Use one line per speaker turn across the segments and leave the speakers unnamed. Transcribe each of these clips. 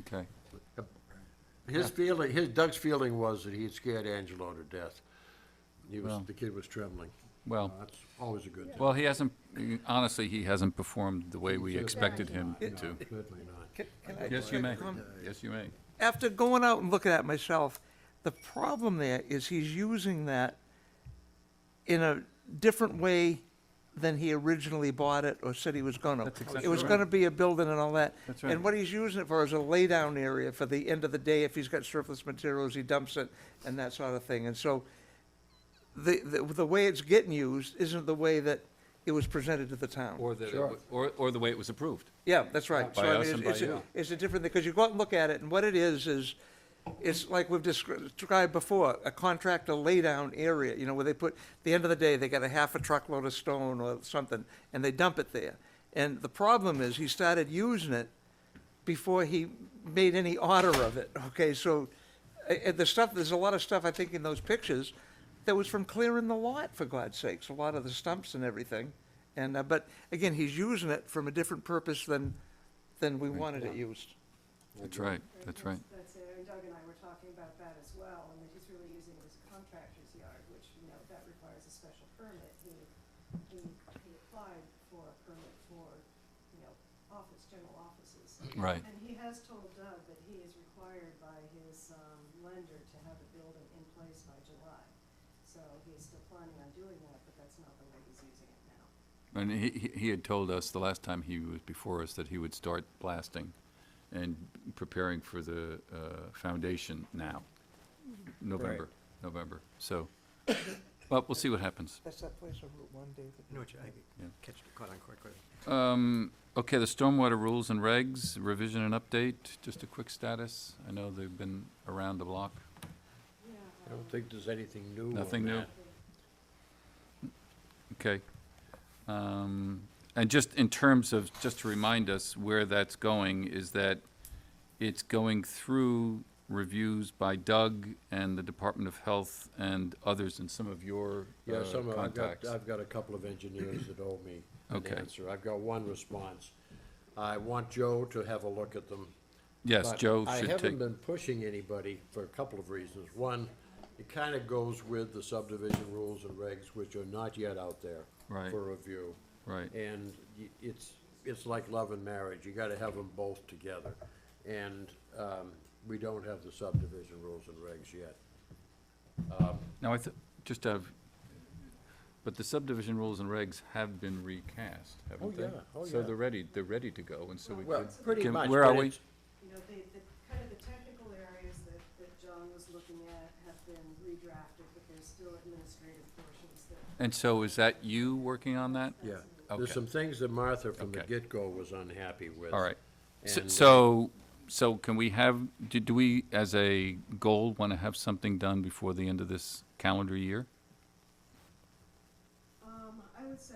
Okay.
His feeling, his, Doug's feeling was that he had scared Angelo to death. He was,
Well.
the kid was trembling.
Well,
That's always a good thing.
well, he hasn't, honestly, he hasn't performed the way we expected him to.
Certainly not.
Can- can I
Yes,
just
you
make a
may.
comment?
Yes, you may.
After going out and looking at it myself, the problem there is he's using that in a different way than he originally bought it or said he was gonna.
That's exactly
It was
right.
gonna be a building and all that.
That's right.
And what he's using it for is a laydown area for the end of the day, if he's got surplus materials, he dumps it and that sort of thing. And so the, the, the way it's getting used isn't the way that it was presented to the town.
Or the, or, or the way it was approved.
Yeah, that's right. So
By
I
us
mean,
and
it's-
by
it's a-
you.
It's a different, because you go out and look at it, and what it is, is, it's like we've descri- described before, a contractor laydown area, you know, where they put, the end of the day, they got a half a truckload of stone or something, and they dump it there. And the problem is, he started using it before he made any order of it, okay? So, uh, uh, the stuff, there's a lot of stuff, I think, in those pictures that was from clearing the lot, for God's sakes, a lot of the stumps and everything. And, uh, but again, he's using it from a different purpose than, than we wanted it used.
That's right, that's right.
That's it, and Doug and I were talking about that as well, and that he's really using it as a contractor's yard, which, you know, that requires a special permit. He, he, he applied for a permit for, you know, office, general offices.
Right.
And he has told Doug that he is required by his, um, lender to have the building in place by July. So he's still planning on doing that, but that's not the way he's using it now.
And he, he- he had told us the last time he was before us that he would start blasting and preparing for the uh, foundation now, November, November. So, but we'll see what happens.
That's that place on Route One, David.
No, which I
Yeah.
catch, caught on quite quickly.
Um, okay, the stormwater rules and regs, revision and update, just a quick status. I know they've been around the block.
I don't think there's anything new. on
Nothing new?
that.
Okay. Um, And just in terms of, just to remind us where that's going, is that it's going through reviews by Doug and the Department of Health and others and some of your
Yeah,
uh,
some, of- I've got,
contacts.
I've got a couple of engineers that owe me an
Okay.
answer. I've got one response. I want Joe to have a look at them.
Yes,
But
Joe
I
should
haven't
take,
been pushing anybody for a couple of reasons. One, it kind of goes with the subdivision rules and regs, which are not yet out there
Right.
for review.
Right.
And y- it's, it's like love and marriage, you gotta have them both together. And, um, we don't have the subdivision rules and regs yet.
now, I th- just have, but the subdivision rules and regs have been recast, haven't they?
yeah, oh,
So
yeah.
they're ready, they're ready to go, and so we
Well,
could.
pretty
can-
much,
Where are
but
we?
it's-
you know, the, the, kind of the technical areas that, that John was looking at have been redrafted, but there's still administrative portions that
And so is that you working on that?
Yeah,
Okay.
there's some things that Martha from the
Okay.
get-go was unhappy with.
All right. S-
And, uh,
So, so can we have, do, do we, as a goal, want to have something done before the end of this calendar year?
Um, I would say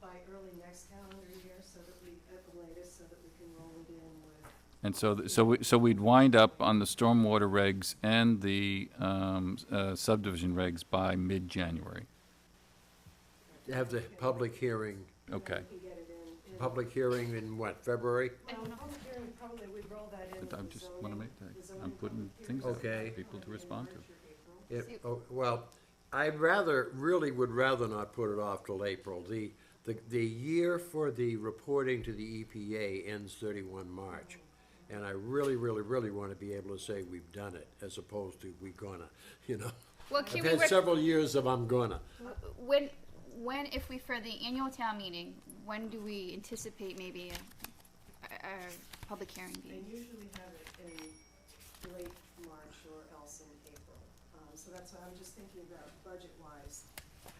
by early next calendar year, so that we, at the latest, so that we can roll it in with,
And so, th- so, we- so we'd wind up on the stormwater regs and the um, s- uh, subdivision regs by mid-January.
Have the public hearing,
Okay.
we can get it in. in-
public hearing in what, February?
Well, the public hearing, probably we'd roll that in with
But I
the
just want to
zoning-
make
the
that, I'm
zoning
putting
public
things
hearing
out
Okay.
for
in
people to
March
respond
or
to.
April.
It, oh, well, I'd rather, really would rather not put it off till April. The, the, the year for the reporting to the EPA ends thirty-one March. And I really, really, really wanna be able to say we've done it, as opposed to we gonna, you know?
Well,
I've
can we,
had
rec-
several years of I'm gonna.
when, when, if we, for the annual town meeting, when do we anticipate maybe a, a, a public hearing
They
being?
usually have it in late March or else in April. Um, so that's why I'm just thinking about budget-wise,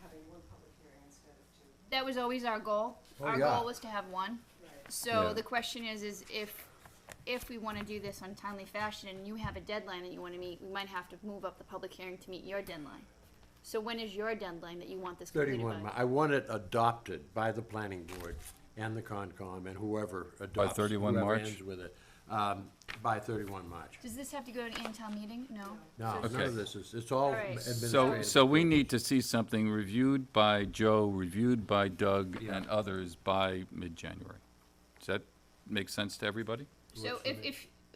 having one public hearing instead of two.
That was always our goal.
Oh,
Our
yeah.
goal was to have one.
Right.
Yeah.
So the question is, is if, if we wanna do this on timely fashion and you have a deadline that you wanna meet, we might have to move up the public hearing to meet your deadline. So when is your deadline that you want this completed
Thirty-one,
by?
Mar- I want it adopted by the planning board and the Concom and whoever adopts.
31
whoever
March?
ends with it, um, by thirty-one March.
Does this have to go to annual town meeting? No?
No,
So-
none
Okay.
of this is, it's all
All right. So-
So,
administrative.
so we need to see something reviewed by Joe, reviewed by Doug and others by mid-January. Does that make sense to everybody?
So if, if,